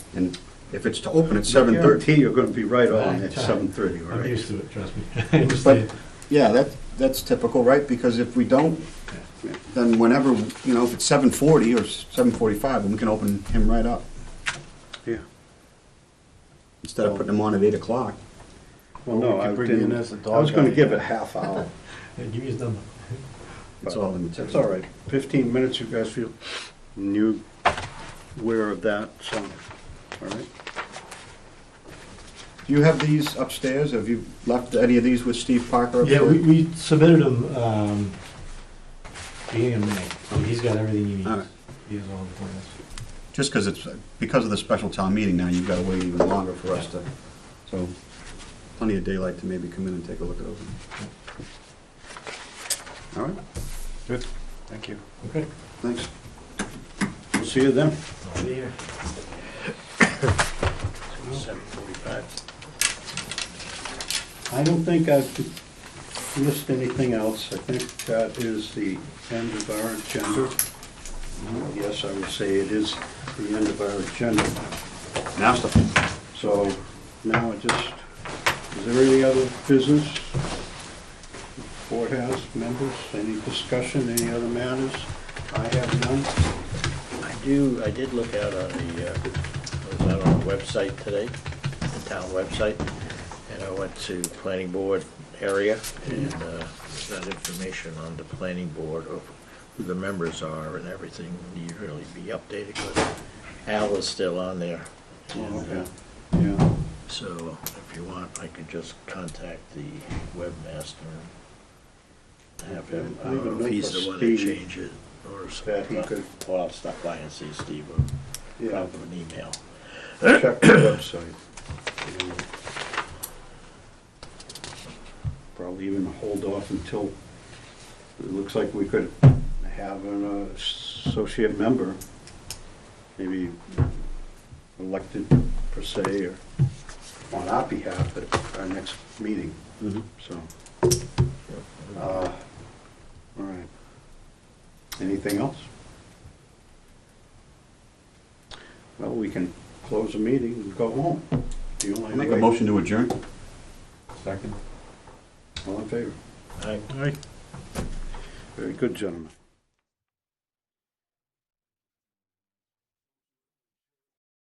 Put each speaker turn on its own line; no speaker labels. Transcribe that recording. And if it's to open at 7:30, you're going to be right on at
Right.
7:30, all
I'm
right?
used to it, trust me. I
But,
understand.
yeah, that, that's typical, right? Because if we don't, then whenever, you know, if it's 7:40 or 7:45, then we can open him right up.
Yeah,
Instead of putting him on at 8 o'clock.
well, no,
We
I
could bring in
didn't,
as a
I
dog
was gonna
guy.
give it half hour.
Hey, Give me his number.
It's all in the
That's all right, fifteen minutes, you guys feel, and you aware of that, so, all right?
Do you have these upstairs? Have you left any of these with Steve Parker? up
Yeah,
there?
we, we submitted him, um, beginning of May, so he's got everything he needs.
All right.
He has all the plans.
Just because it's, because of the special town meeting now, you've got to wait even longer for us to, so plenty of daylight to maybe come in and take a look at those.
All right? Good. Thank you.
Okay.
Thanks.
We'll see you then.
I'll be here.
Seven forty-five. I don't think I've missed anything else. I think that is the end of our agenda. Yes, I would say it is the end of our agenda.
Now stuff.
So now I just, is there any other business? Board has members, any discussion, any other matters? I have none.
I do, I did look out on the, uh, I was out on the website today, the town website, and I went to planning board area, and uh, that information on the planning board of who the members are and everything, need to really be updated, but Al is still on there. and, uh,
Oh, Okay, yeah.
So if you want, I could just contact the webmaster and have him, I don't know if he's the one to change it or
That he
something.
could-
Or I'll stop by and see Steve or
Yeah,
drop him an email.
check the website. Yeah. Probably even hold off until, it looks like we could have an uh, associate member, maybe elected per se, or on our behalf at our next meeting,
Mm-hmm.
so. uh, All right. Anything else? Well, we can close the meeting and go home. The only
Make a
way.
motion to adjourn?
All in favor?
All right.
Very good, gentlemen.